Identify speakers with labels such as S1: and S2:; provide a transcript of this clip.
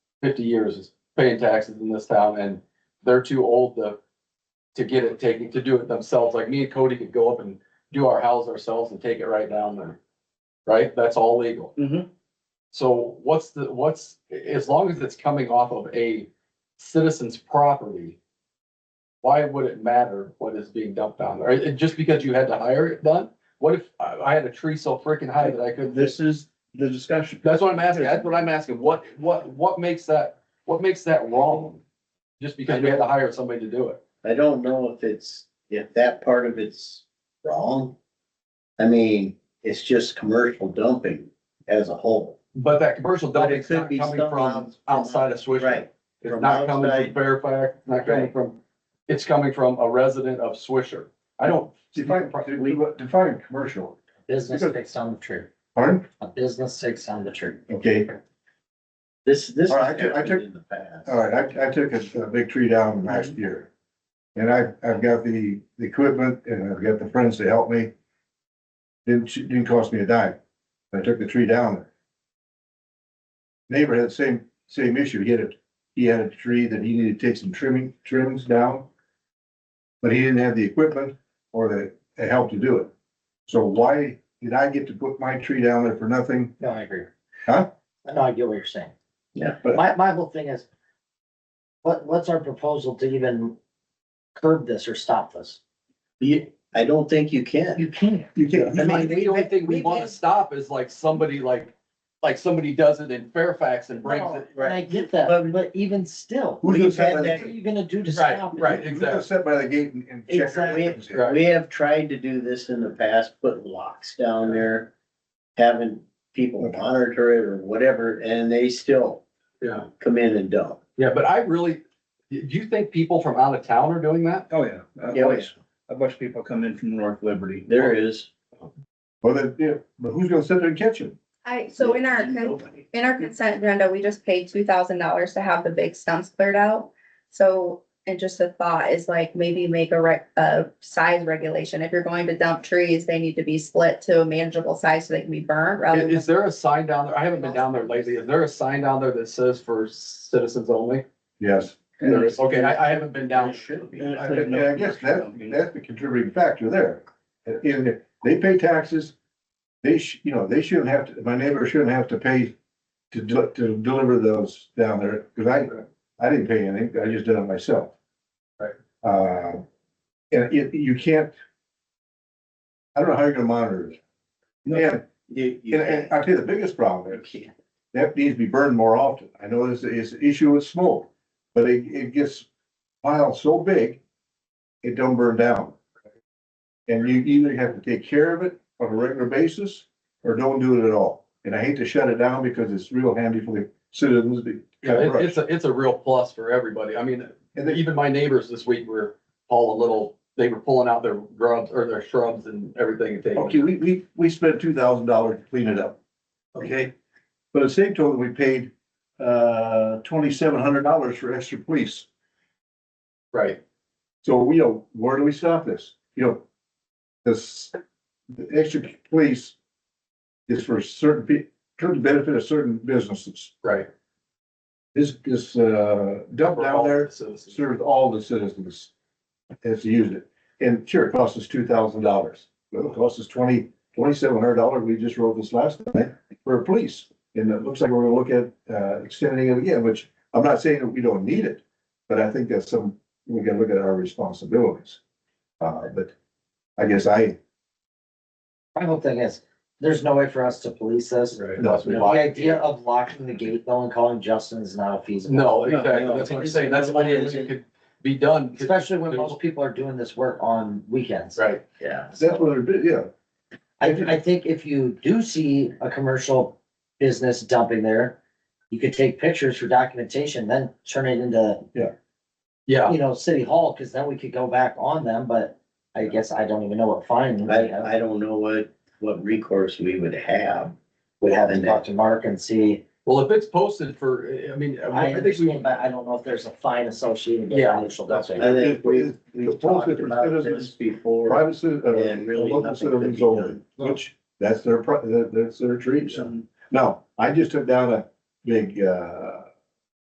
S1: fifty years is paying taxes in this town and they're too old to, to get it taken, to do it themselves. Like me and Cody could go up and do our house ourselves and take it right down there. Right? That's all legal.
S2: Mhm.
S1: So what's the, what's, as long as it's coming off of a citizen's property, why would it matter what is being dumped down there? And just because you had to hire it done? What if I, I had a tree so freaking high that I couldn't?
S2: This is the discussion.
S1: That's what I'm asking. That's what I'm asking. What, what, what makes that, what makes that wrong? Just because we had to hire somebody to do it.
S3: I don't know if it's, if that part of it's wrong. I mean, it's just commercial dumping as a whole.
S1: But that commercial
S3: But
S1: dumping's
S3: it could
S1: not
S3: be
S1: coming
S3: some
S1: from
S3: outs-
S1: outside of Swishman.
S3: Right.
S1: It's
S3: from
S1: not coming from
S3: outside.
S1: Fairfax, It's not coming
S3: Right.
S1: from, it's coming from a resident of Swisher. I don't.
S4: Define, define- define commercial.
S5: Business sticks on the tree,
S4: Pardon?
S5: a business sticks on the tree.
S4: Okay,
S3: This, this
S4: All right,
S3: has
S4: I took- I
S3: happened
S4: took-
S3: in the past.
S4: all right, I, I took a, a big tree down last year. And I, I've got the, the equipment and I've got the friends to help me. Didn't, ch- didn't cost me a dime. I took the tree down. Neighbor had the same, same issue. He had a, he had a tree that he needed to take some trimming, trims down. But he didn't have the equipment or the, the help to do it. So why did I get to put my tree down there for nothing?
S5: No, I agree.
S4: Huh?
S5: No, I get what you're saying.
S3: Yeah.
S4: But-
S5: My, my whole thing is, what, what's our proposal to even curb this or stop this?
S3: You- I don't think you can.
S5: You can't.
S4: You can't,
S1: I
S5: I
S1: mean,
S5: mean,
S1: the only thing we
S5: we
S1: wanna
S5: had-
S1: stop is like somebody like, like somebody does it in Fairfax and brings
S5: No,
S1: it.
S5: And I get that,
S3: But-
S5: but even still,
S4: Who's gonna
S3: We've
S4: set
S3: had
S4: by
S5: what
S4: the
S5: are
S4: gate?
S5: you gonna do to
S1: Right,
S5: stop it?
S1: right.
S4: Who's gonna sit by the gate and, and check? our
S3: Exactly.
S4: items in?
S1: Right.
S3: We have tried to do this in the past, put locks down there, having people monitor it or whatever, and they still
S1: Yeah.
S3: come in and dump.
S1: Yeah, but I really, do you think people from out of town are doing that?
S2: Oh, yeah. A
S3: Yeah,
S2: bunch, a bunch of people come in from North Liberty.
S3: There is.
S4: Well, then, yeah, but who's gonna sit there and catch it?
S6: I, so in our, con-
S3: Nobody.
S6: in our consent agenda, we just paid two thousand dollars to have the big stumps cleared out. So, and just a thought is like maybe make a rec, a size regulation. If you're going to dump trees, they need to be split to a manageable size so they can be burnt
S1: I-
S6: rather than.
S1: Is there a sign down there? I haven't been down there lately. Is there a sign down there that says for citizens only?
S4: Yes,
S1: There is, okay, I, I haven't been down.
S3: There should be.
S4: I, I guess that, that's the contributing factor there. In, that they pay taxes, they sh you know, they shouldn't have to, my neighbor shouldn't have to pay to do, to deliver those down there, cause I, I didn't pay anything, I just did it myself.
S1: Right.
S4: Uh, and it, you can't, I don't know how you're gonna monitor it. And,
S3: You, you
S4: and- and
S3: can't.
S4: I'll tell you the biggest problem
S3: You
S4: is,
S3: can't.
S4: that needs to be burned more often. I know this is an issue with smoke, but it, it gets piled so big, it don't burn down. And you either have to take care of it on a regular basis or don't do it at all. And I hate to shut it down because it's real handy for the citizens to
S1: Yeah,
S4: cut
S1: it-
S4: brush.
S1: it's a, it's a real plus for everybody. I mean,
S4: And they-
S1: even my neighbors this week were all a little, they were pulling out their grubs or their shrubs and everything and taking.
S4: Okay, we, we, we spent two thousand dollars to clean it up, okay? But at the same token, we paid, uh, twenty-seven hundred dollars for extra police.
S1: Right,
S4: So we know, where do we stop this? You know, this, the extra police is for certain peo- to the benefit of certain businesses.
S1: right.
S4: This, this, uh, dump
S1: For
S4: down
S1: all
S4: there
S1: the citizens.
S4: serves all the citizens as to use it. And sure, it costs us two thousand dollars. Well, it costs us twenty, twenty-seven hundred dollars. We just wrote this last night for police. And it looks like we're gonna look at, uh, extending it again, which I'm not saying that we don't need it, but I think that's some, we gotta look at our responsibilities. Uh, but I guess I,
S5: My whole thing is, there's no way for us to police this.
S1: Right.
S4: No.
S5: The idea of locking the gate though and calling Justin is not a feasible.
S1: No,
S3: No,
S1: exactly.
S3: no.
S1: That's what I'm saying. That's the only thing that could be done.
S5: Especially when most people are doing this work on weekends.
S1: Right,
S3: Yeah.
S4: that's what it is, yeah.
S5: I, I think if you do see a commercial business dumping there, you could take pictures for documentation, then turn it into,
S1: yeah.
S5: you know, city hall, cause then we could go back on them, but I guess I don't even know what fine we
S3: I,
S5: have.
S3: I don't know what, what recourse we would have.
S5: We'd have to talk to Mark and see.
S1: Well, if it's posted for, I mean,
S5: I
S1: I think we.
S5: understand, but I don't know if there's a fine associated with
S1: Yeah.
S5: commercial dumping.
S3: I think we,
S4: It's-
S3: we've
S4: it's posted
S3: talked
S4: for
S3: about
S4: citizens.
S3: this before.
S4: Private citizens,
S3: And
S4: uh,
S3: really
S4: local
S3: nothing could be
S4: citizens only,
S3: done.
S4: which, that's their, pri- that- that's their trees. Now, I just took down a big, uh,